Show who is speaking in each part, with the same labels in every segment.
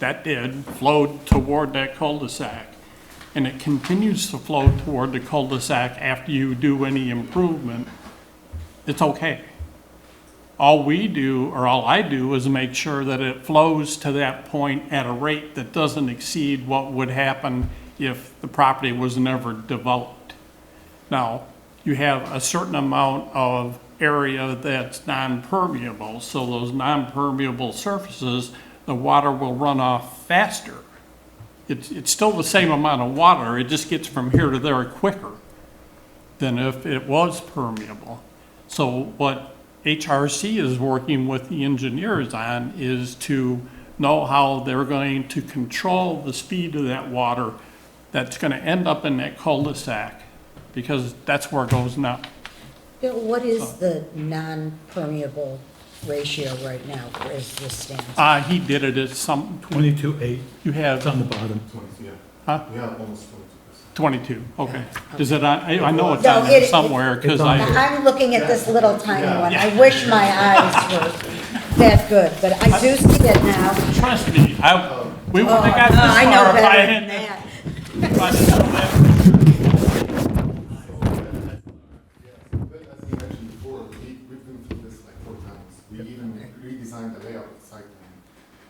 Speaker 1: that did flowed toward that cul-de-sac. And it continues to flow toward the cul-de-sac after you do any improvement, it's okay. All we do, or all I do, is make sure that it flows to that point at a rate that doesn't exceed what would happen if the property was never developed. Now, you have a certain amount of area that's non-permeable, so those non-permeable surfaces, the water will run off faster. It's, it's still the same amount of water, it just gets from here to there quicker than if it was permeable. So what HRC is working with the engineers on is to know how they're going to control the speed of that water that's gonna end up in that cul-de-sac, because that's where it goes now.
Speaker 2: Bill, what is the non-permeable ratio right now as this stands?
Speaker 1: Uh, he did it at some,
Speaker 3: Twenty-two eight,
Speaker 1: you
Speaker 3: it's on
Speaker 1: have
Speaker 3: the bottom.
Speaker 4: Twenty, yeah.
Speaker 1: Huh?
Speaker 4: We have almost twenty percent.
Speaker 1: twenty-two, okay. Is it on, I, I know it's
Speaker 2: No,
Speaker 1: on there
Speaker 2: it- it-
Speaker 1: somewhere, cause
Speaker 3: It's on
Speaker 1: I,
Speaker 3: there.
Speaker 2: Now, I'm looking at this little tiny
Speaker 4: Yeah.
Speaker 2: one. I wish my eyes were that good, but I do see it now.
Speaker 1: trust me, I, we
Speaker 2: Oh,
Speaker 1: wouldn't have got this
Speaker 2: no, I know
Speaker 1: far if I
Speaker 2: better than
Speaker 1: hadn't.
Speaker 2: that.
Speaker 1: if I didn't know that.
Speaker 4: But as we mentioned before, we, we've been through this like four times. We even redesigned the layout of the site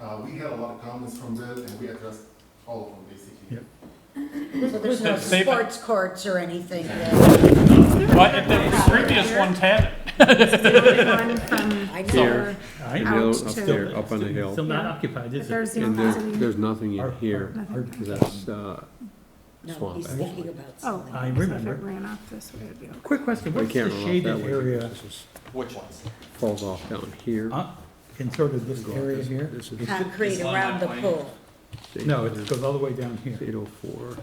Speaker 4: plan. Uh, we had a lot of comments from this and we addressed all of them basically.
Speaker 3: Yeah.
Speaker 2: So there's no
Speaker 1: They-
Speaker 2: sports courts or anything there.
Speaker 1: But if the previous ones had it.
Speaker 5: One from
Speaker 2: I know.
Speaker 5: here
Speaker 6: Here.
Speaker 3: I-
Speaker 5: out
Speaker 6: Still up
Speaker 5: to,
Speaker 6: there. up on the hill.
Speaker 3: Still not occupied,
Speaker 5: if
Speaker 3: is it?
Speaker 5: there's no
Speaker 6: And there,
Speaker 5: housing.
Speaker 6: there's nothing in here,
Speaker 3: Hard-
Speaker 6: that's, uh,
Speaker 2: No,
Speaker 6: Swamp,
Speaker 2: he's
Speaker 6: actually.
Speaker 2: thinking about
Speaker 5: Oh,
Speaker 2: something.
Speaker 3: I
Speaker 5: so if it
Speaker 3: remember.
Speaker 5: ran off this way, it'd be okay.
Speaker 3: Quick question,
Speaker 6: we
Speaker 3: what's the
Speaker 6: can't run off that
Speaker 3: shaded
Speaker 6: way.
Speaker 3: area,
Speaker 6: because this is-
Speaker 4: Which ones?
Speaker 6: Falls off down here.
Speaker 3: uh, in sort of this
Speaker 6: Go up
Speaker 3: area
Speaker 6: this-
Speaker 3: here?
Speaker 6: This is
Speaker 2: Concrete around the pool.
Speaker 3: No, it goes all the way down here.
Speaker 6: Eight oh four.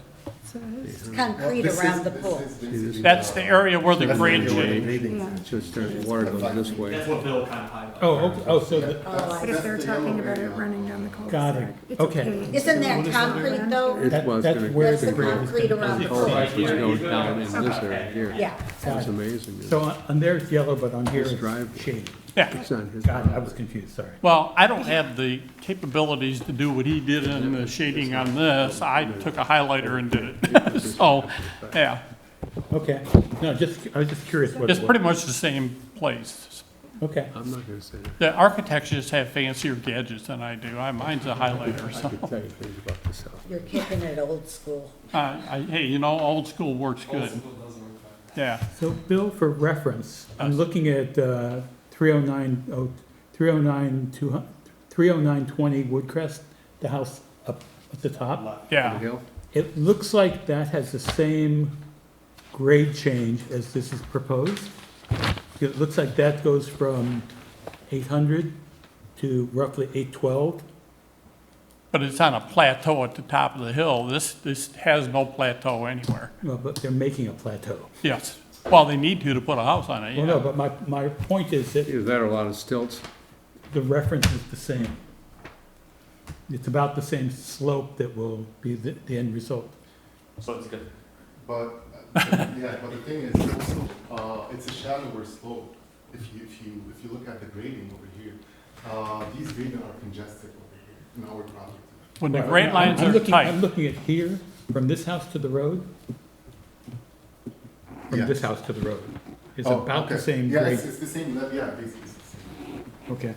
Speaker 5: So it's-
Speaker 2: It's concrete
Speaker 4: This is-
Speaker 2: around the
Speaker 4: this
Speaker 2: pool.
Speaker 4: is basically
Speaker 1: That's the area where the
Speaker 4: That's the
Speaker 1: grade
Speaker 4: area.
Speaker 1: change.
Speaker 5: yeah.
Speaker 6: So it starts, water goes this way.
Speaker 7: That's what Bill kind of highlighted.
Speaker 3: Oh, okay, oh, so, the-
Speaker 2: Oh,
Speaker 5: But
Speaker 2: I-
Speaker 5: if they're talking about it running down the
Speaker 3: got
Speaker 5: cul-de-sac,
Speaker 3: it,
Speaker 5: it's
Speaker 3: okay.
Speaker 5: okay.
Speaker 2: Isn't that concrete though?
Speaker 6: It
Speaker 3: That-
Speaker 6: was
Speaker 3: that's
Speaker 6: gonna.
Speaker 3: where
Speaker 2: That's
Speaker 3: the
Speaker 2: the
Speaker 3: grade is
Speaker 2: concrete around the
Speaker 6: Falls
Speaker 2: pool.
Speaker 6: off, which goes down in this area here.
Speaker 2: Yeah.
Speaker 6: It's amazing.
Speaker 3: So on on there it's yellow, but on here
Speaker 6: This
Speaker 3: it's
Speaker 6: driveway.
Speaker 3: shaded.
Speaker 1: Yeah,
Speaker 6: It's on his.
Speaker 3: Got it, I was confused, sorry.
Speaker 1: well, I don't have the capabilities to do what he did in the shading on this. I took a highlighter and did it. So, yeah,
Speaker 3: Okay, no, just, I was just curious what
Speaker 1: it's
Speaker 3: it
Speaker 1: pretty
Speaker 3: was.
Speaker 1: much the same place.
Speaker 3: Okay,
Speaker 6: I'm not gonna say that.
Speaker 1: The architects just have fancier gadgets than I do. I, mine's a highlighter, so.
Speaker 6: I could tell you things about this house.
Speaker 2: You're kicking it old school.
Speaker 1: Uh, I, hey, you know, old school works good. Yeah,
Speaker 3: so Bill, for reference, I'm looking at uh, 309, oh, 309, 200 30920 Woodcrest, the house up at the top.
Speaker 6: The
Speaker 1: yeah.
Speaker 6: hill?
Speaker 3: It looks like that has the same grade change as this is proposed. It looks like that goes from 800 to roughly 812.
Speaker 1: But it's on a plateau at the top of the hill. This, this has no plateau anywhere.
Speaker 3: Well, but they're making a plateau.
Speaker 1: Yes. Well, they need to to put a house on it,
Speaker 3: Well, no,
Speaker 1: yeah.
Speaker 3: but my, my point is that
Speaker 6: Is that or a lot of stilts?
Speaker 3: the reference is the same. It's about the same slope that will be the, the end result.
Speaker 7: So it's good.
Speaker 4: But, uh, yeah, but the thing is, also, uh, it's a shallower slope. If you, if you, if you look at the grading over here, uh, these grading are congested over here in our property.
Speaker 1: When the
Speaker 3: Right,
Speaker 1: grade
Speaker 3: I'm-
Speaker 1: lines
Speaker 3: I'm
Speaker 1: are
Speaker 3: looking- I'm
Speaker 1: tight,
Speaker 3: looking at here, from this house to the road. From
Speaker 4: Yeah.
Speaker 3: this house to the road. It's
Speaker 4: Oh,
Speaker 3: about the
Speaker 4: okay.
Speaker 3: same
Speaker 4: Yeah,
Speaker 3: grade.
Speaker 4: it's, it's the same, level, yeah, basically. it's the same.
Speaker 3: Okay.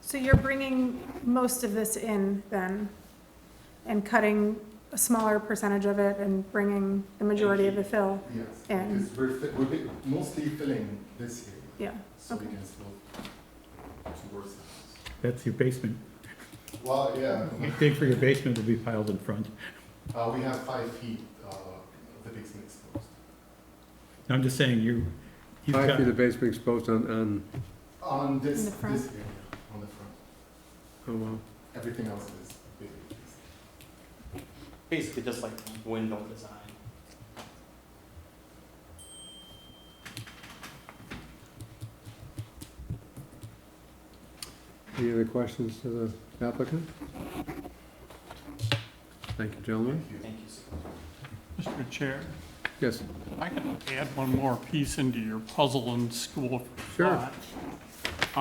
Speaker 5: So you're bringing most of this in then, and cutting a smaller percentage of it and bringing the majority of the fill
Speaker 4: Yes,
Speaker 5: And-
Speaker 4: because we're, fi- we're bi- mostly filling this here,
Speaker 5: Yeah,
Speaker 4: so we
Speaker 5: Okay.
Speaker 4: can slope towards the house.
Speaker 3: That's your basement.
Speaker 4: Well, yeah,
Speaker 3: Dig for your basement will be piled in front.
Speaker 4: uh, we have five feet, uh, of the basement exposed.
Speaker 3: I'm just saying, you, you've
Speaker 6: Five
Speaker 3: got,
Speaker 6: feet of basement exposed on, on,
Speaker 4: On this,
Speaker 5: In the
Speaker 4: this
Speaker 5: front?
Speaker 4: area, on the front,
Speaker 6: oh, well,
Speaker 4: everything else is basically.
Speaker 7: Basically, just like window design.
Speaker 6: any other questions to the applicant? Thank you, gentlemen.
Speaker 7: Thank you so much.
Speaker 1: Mr. Chair.
Speaker 6: Yes,
Speaker 1: I can add one more piece into your puzzle and school. of
Speaker 6: Sure.
Speaker 1: thought.